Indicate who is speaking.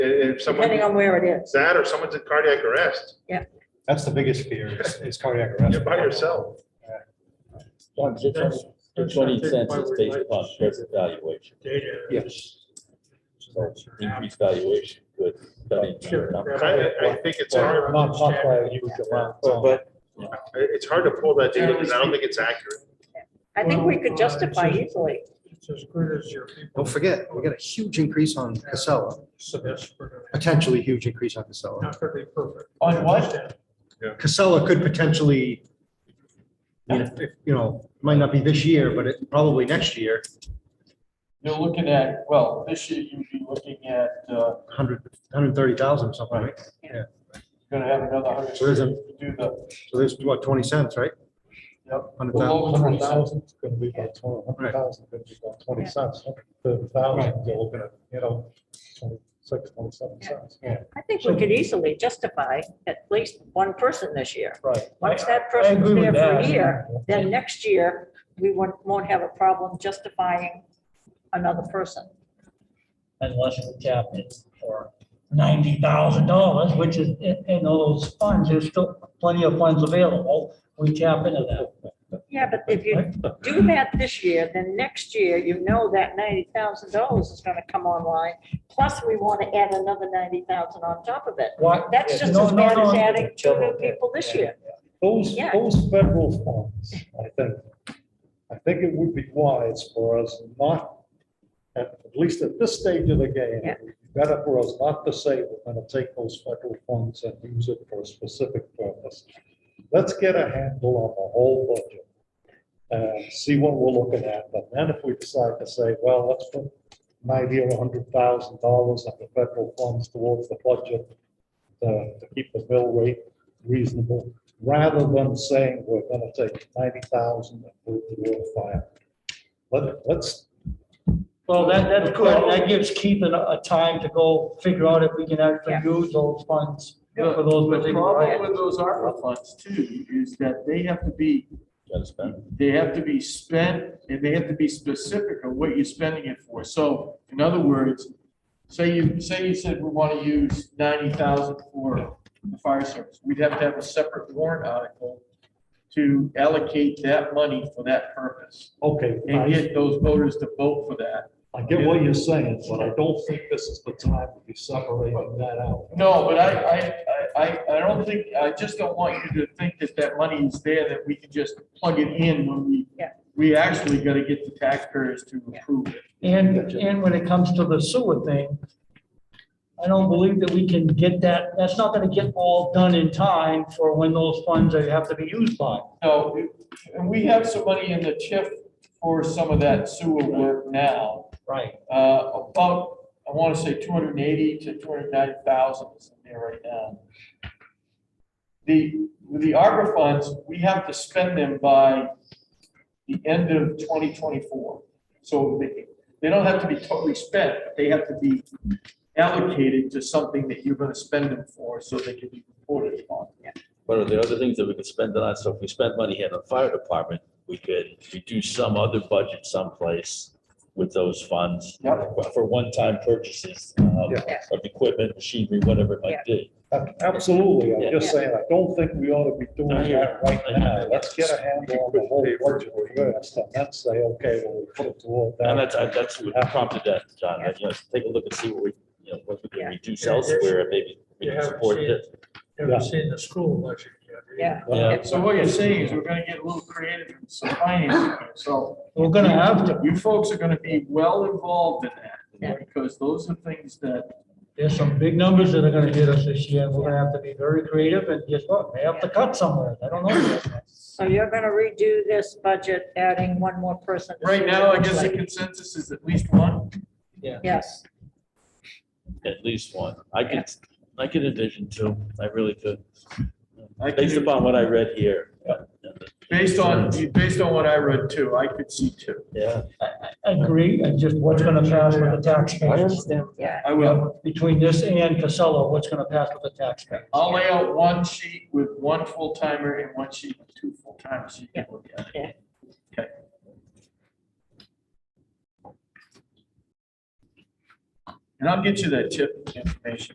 Speaker 1: if someone,
Speaker 2: depending on where it
Speaker 1: is
Speaker 2: is.
Speaker 1: that or someone's in cardiac arrest,
Speaker 3: That's the biggest fear is- is cardiac arrest.
Speaker 1: you're by yourself.
Speaker 4: The twenty cents is based upon present valuation,
Speaker 3: Yes.
Speaker 4: so increased valuation could. study the number.
Speaker 1: I, I think it's hard,
Speaker 3: Not, not by a huge amount. But
Speaker 1: it's hard to pull that data because I don't think it's accurate.
Speaker 2: I think we could justify easily.
Speaker 5: It's as good as your people.
Speaker 6: Don't forget, we got a huge increase on Casella,
Speaker 5: So that's, we're gonna-
Speaker 6: potentially huge increase on Casella.
Speaker 5: not gonna be perfect.
Speaker 3: On what?
Speaker 6: Casella could potentially, I mean, if- if, you know, might not be this year, but it, probably next year,
Speaker 7: You're looking at, well, this year you'd be looking at, uh,
Speaker 6: 100, 130,000 or something, right?
Speaker 7: gonna have another hundred.
Speaker 6: So there's a-
Speaker 7: to Do the,
Speaker 6: So there's, what, 20 cents, right?
Speaker 7: Yep.
Speaker 6: 100,000.
Speaker 7: below twenty thousand.
Speaker 3: is gonna be about twenty, hundred thousand, gonna be about twenty cents, thirty thousand, you're looking at, you know, twenty-six, twenty-seven cents. Yeah.
Speaker 2: I think we could easily justify at least one person this year.
Speaker 3: Right.
Speaker 2: Once that
Speaker 3: I agree
Speaker 2: person's there
Speaker 3: with
Speaker 2: for a
Speaker 3: that.
Speaker 2: year, then next year, we won't, won't have a problem justifying another person.
Speaker 8: unless we cap it for ninety thousand dollars, which is in in those funds, there's still plenty of funds available. We tap into that.
Speaker 2: Yeah, but if you do that this year, then next year, you know that ninety thousand dollars is gonna come online. Plus, we want to add another ninety thousand on top of it.
Speaker 8: Why?
Speaker 2: That's just
Speaker 8: No,
Speaker 2: as
Speaker 8: no,
Speaker 2: bad as
Speaker 8: no.
Speaker 2: adding two new people this year.
Speaker 3: Those,
Speaker 2: Yeah.
Speaker 3: those federal funds, I think, I think it would be wise for us not, at at least at this stage of the game,
Speaker 2: Yeah.
Speaker 3: it'd be better for us not to say we're gonna take those federal funds and use it for a specific purpose. Let's get a handle on the whole budget and see what we're looking at. But then if we decide to say, well, let's put ninety or hundred thousand dollars of the federal funds towards the budget to to keep the mill rate reasonable, rather than saying we're gonna take ninety thousand and put it toward fire. Let, let's,
Speaker 8: Well, that, that's good. That gives Keith a, a time to go figure out if we can actually
Speaker 2: Yeah.
Speaker 8: use those funds
Speaker 7: Yeah.
Speaker 8: for those
Speaker 7: The
Speaker 8: particular
Speaker 7: problem
Speaker 8: items.
Speaker 7: with those ARPA funds too, is that they have to be,
Speaker 4: Gotta spend.
Speaker 7: they have to be spent, and they have to be specific of what you're spending it for. So, in other words, say you, say you said we wanna use ninety thousand for the fire service, we'd have to have a separate warrant article to allocate that money for that purpose,
Speaker 3: okay,
Speaker 7: and
Speaker 3: I,
Speaker 7: get those voters to vote for that.
Speaker 3: I get what you're saying, but I don't think this is the time to be separating that out.
Speaker 7: No, but I, I, I, I I don't think, I just don't want you to think that that money is there, that we can just plug it in when we,
Speaker 2: Yeah.
Speaker 7: we actually gotta get the taxpayers to approve it.
Speaker 8: And, and when it comes to the sewer thing, I don't believe that we can get that, that's not gonna get all done in time for when those funds are- have to be used by.
Speaker 7: No, we- and we have some money in the TIF for some of that sewer work now.
Speaker 8: Right.
Speaker 7: Uh, about, I wanna say two hundred and eighty to two hundred and ninety thousand is in there right now. The, with the ARPA funds, we have to spend them by the end of twenty twenty-four. So they, they don't have to be totally spent, but they have to be allocated to something that you're gonna spend them for, so they can be reported upon.
Speaker 4: But are there other things that we could spend it on? So if we spent money here in the fire department, we could reduce some other budget someplace with those funds.
Speaker 7: Yep.
Speaker 4: For one-time purchases um,
Speaker 3: Yeah.
Speaker 4: of equipment, machinery, whatever it might be.
Speaker 3: A- Absolutely, I'm just saying, I don't think we ought to be doing that right now. Let's get a handle on the whole budget first, and then say, okay, well, we put it toward that.
Speaker 4: And that's, I- that's what prompted that, John, that, you know, take a look and see what we, you know, what we
Speaker 2: Yeah.
Speaker 4: can reduce elsewhere, and maybe we
Speaker 5: You
Speaker 4: can
Speaker 5: haven't
Speaker 4: support
Speaker 5: seen-
Speaker 4: it.
Speaker 3: Yeah.
Speaker 5: Ever seen the school budget yet? either.
Speaker 2: Yeah.
Speaker 4: Yeah.
Speaker 7: So what you're saying is we're gonna get a little creative in some financing, so.
Speaker 8: We're gonna have to.
Speaker 7: You folks are gonna be well involved in
Speaker 2: Yeah.
Speaker 7: that, because those are things that,
Speaker 8: There's some big numbers that are gonna hit us this year, and we're gonna have to be very creative, and guess what, may have to cut somewhere, I don't know. yet.
Speaker 2: So you're gonna redo this budget, adding one more person. to see
Speaker 7: right
Speaker 2: what
Speaker 7: now,
Speaker 2: it
Speaker 7: I
Speaker 2: looks
Speaker 7: guess the
Speaker 2: like.
Speaker 7: consensus is at least one.
Speaker 2: Yes,
Speaker 4: At least one. I could, I could envision two. I really could.
Speaker 7: I could-
Speaker 4: Based upon what I read here.
Speaker 7: Based on, based on what I read too, I could see two.
Speaker 4: Yeah.
Speaker 8: I, I agree, and just what's gonna pass with the taxpayers.
Speaker 2: yeah,
Speaker 7: I will,
Speaker 8: Between this and Casella, what's gonna pass with the taxpayers?
Speaker 7: I'll lay out one sheet with one full timer and one sheet with two full timers. so you can look at it. And I'll get you that tip information.